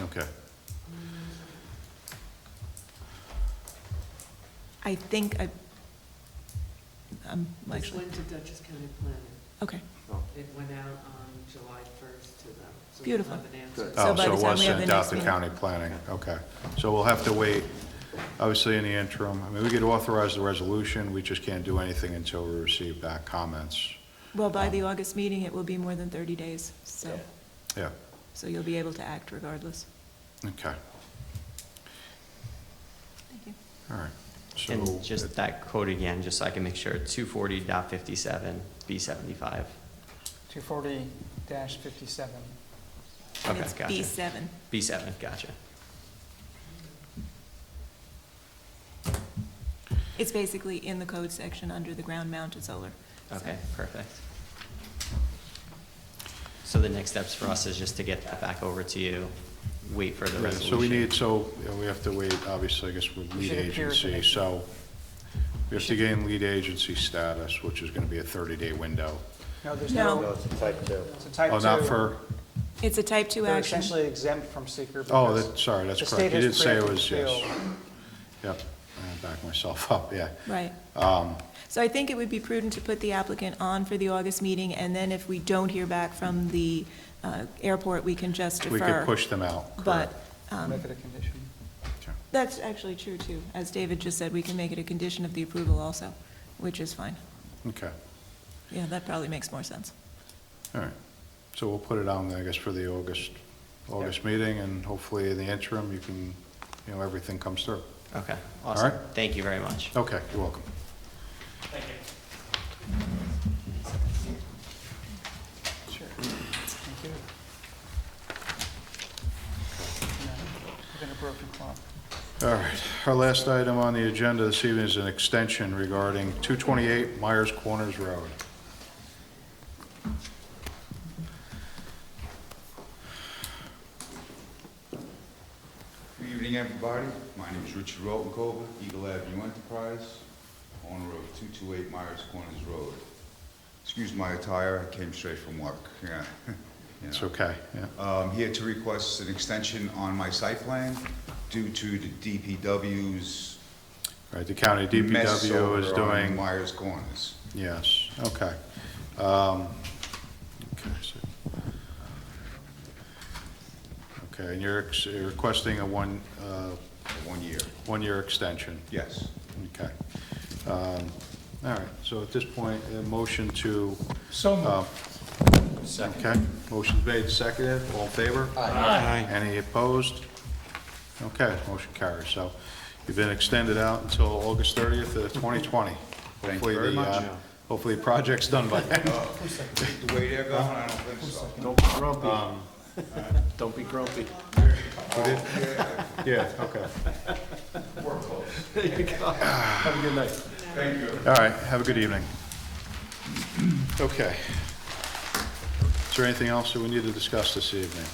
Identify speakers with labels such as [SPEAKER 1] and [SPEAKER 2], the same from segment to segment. [SPEAKER 1] Okay.
[SPEAKER 2] I think I, I'm
[SPEAKER 3] This
[SPEAKER 2] actually,
[SPEAKER 3] went to Dutchess County Planning.
[SPEAKER 2] okay.
[SPEAKER 3] It went out on July 1st to them. so we'll
[SPEAKER 2] Beautiful.
[SPEAKER 3] have an answer.
[SPEAKER 4] Good.
[SPEAKER 2] So
[SPEAKER 1] Oh, so
[SPEAKER 2] by the
[SPEAKER 1] it
[SPEAKER 2] time
[SPEAKER 1] was
[SPEAKER 2] we have
[SPEAKER 1] sent
[SPEAKER 2] the
[SPEAKER 1] out
[SPEAKER 2] next
[SPEAKER 1] to
[SPEAKER 2] meeting.
[SPEAKER 1] county planning, okay. So we'll have to wait, obviously, in the interim. I mean, we could authorize the resolution, we just can't do anything until we receive back comments.
[SPEAKER 2] Well, by the August meeting, it will be more than 30 days, so,
[SPEAKER 1] Um, Yeah,
[SPEAKER 2] so you'll be able to act regardless.
[SPEAKER 1] okay,
[SPEAKER 2] Thank you.
[SPEAKER 1] all right. So,
[SPEAKER 5] And just that quote again, just so I can make sure, two forty dot fifty-seven, B seventy-five.
[SPEAKER 6] 240-57.
[SPEAKER 2] And
[SPEAKER 5] Okay,
[SPEAKER 2] it's
[SPEAKER 5] gotcha.
[SPEAKER 2] B7.
[SPEAKER 5] B seven, gotcha.
[SPEAKER 2] It's basically in the code section under the ground mounted solar. so-
[SPEAKER 5] Okay, perfect. So the next steps for us is just to get that back over to you, wait for the
[SPEAKER 1] yeah,
[SPEAKER 5] resolution.
[SPEAKER 1] so we need, so you know, we have to wait, obviously, I guess, with
[SPEAKER 6] We
[SPEAKER 1] lead
[SPEAKER 6] should appear at the
[SPEAKER 1] agency,
[SPEAKER 6] next
[SPEAKER 1] so we have to gain lead agency status, which is gonna be a thirty-day window.
[SPEAKER 6] No, there's
[SPEAKER 2] No.
[SPEAKER 4] No,
[SPEAKER 6] no,
[SPEAKER 4] it's a type two.
[SPEAKER 6] it's a type 2.
[SPEAKER 1] Oh, not for,
[SPEAKER 2] It's a type 2
[SPEAKER 6] They're
[SPEAKER 2] action.
[SPEAKER 6] essentially exempt from seeker.
[SPEAKER 1] oh,
[SPEAKER 6] because
[SPEAKER 1] that, sorry, that's
[SPEAKER 6] the
[SPEAKER 1] correct. You
[SPEAKER 6] state has
[SPEAKER 1] did say it
[SPEAKER 6] preempted
[SPEAKER 1] was,
[SPEAKER 6] appeal.
[SPEAKER 1] yes. Yep, I backed myself up, yeah.
[SPEAKER 2] Right.
[SPEAKER 1] Um,
[SPEAKER 2] So I think it would be prudent to put the applicant on for the August meeting, and then if we don't hear back from the uh, airport, we can just defer.
[SPEAKER 1] We could push them out, correct.
[SPEAKER 2] But um,
[SPEAKER 6] Make it a condition.
[SPEAKER 1] Okay.
[SPEAKER 2] that's actually true, too. As David just said, we can make it a condition of the approval also, which is fine.
[SPEAKER 1] Okay,
[SPEAKER 2] Yeah, that probably makes more sense.
[SPEAKER 1] all right. So we'll put it on, I guess, for the August, August meeting, and hopefully in the interim, you can, you know, everything comes through.
[SPEAKER 5] Okay, awesome.
[SPEAKER 1] right.
[SPEAKER 5] Thank you very much.
[SPEAKER 1] Okay, you're welcome.
[SPEAKER 6] Sure. Thank you. No, We're going to broken clock.
[SPEAKER 1] All right, our last item on the agenda this evening is an extension regarding 228 Myers Corners Road.
[SPEAKER 7] Good evening, everybody. My name is Richard Rotenkova, Eagle Avenue Enterprise, owner of 228 Myers Corners Road. Excuse my attire, I came straight from work, yeah. You
[SPEAKER 1] It's
[SPEAKER 7] know.
[SPEAKER 1] okay, yeah.
[SPEAKER 7] Um, Here to request an extension on my site plan due to the DPW's
[SPEAKER 1] All right, the county
[SPEAKER 7] mess
[SPEAKER 1] DPW is
[SPEAKER 7] over on
[SPEAKER 1] doing,
[SPEAKER 7] Myers Corners.
[SPEAKER 1] yes, okay. Um, Okay, so- Okay, and you're ex- you're requesting a one, uh,
[SPEAKER 7] One year,
[SPEAKER 1] one-year extension?
[SPEAKER 7] yes.
[SPEAKER 1] Okay. Um, All right, so at this point, a motion to,
[SPEAKER 6] So
[SPEAKER 1] uh, okay, motion made, seconded, all in favor? Aye. Any opposed? Okay, motion carries. So you've been extended out until August 30th of 2020.
[SPEAKER 7] Thank you
[SPEAKER 1] Hopefully
[SPEAKER 7] very
[SPEAKER 1] the,
[SPEAKER 7] much.
[SPEAKER 1] uh, Hopefully the project's done by then.
[SPEAKER 7] The way they're going, I don't think so.
[SPEAKER 4] Don't be grumpy. Don't be grumpy.
[SPEAKER 1] Yeah, okay.
[SPEAKER 7] We're close.
[SPEAKER 4] Have a good night.
[SPEAKER 7] Thank you.
[SPEAKER 1] All right, have a good evening. Okay. Is there anything else that we need to discuss this evening?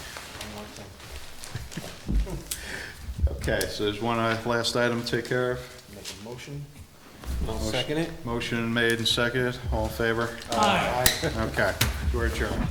[SPEAKER 1] Okay, so there's one uh, last item to take care of.
[SPEAKER 4] Make a motion. I'll second it.
[SPEAKER 1] Motion made and seconded, all in favor? Aye. Okay, we're adjourned.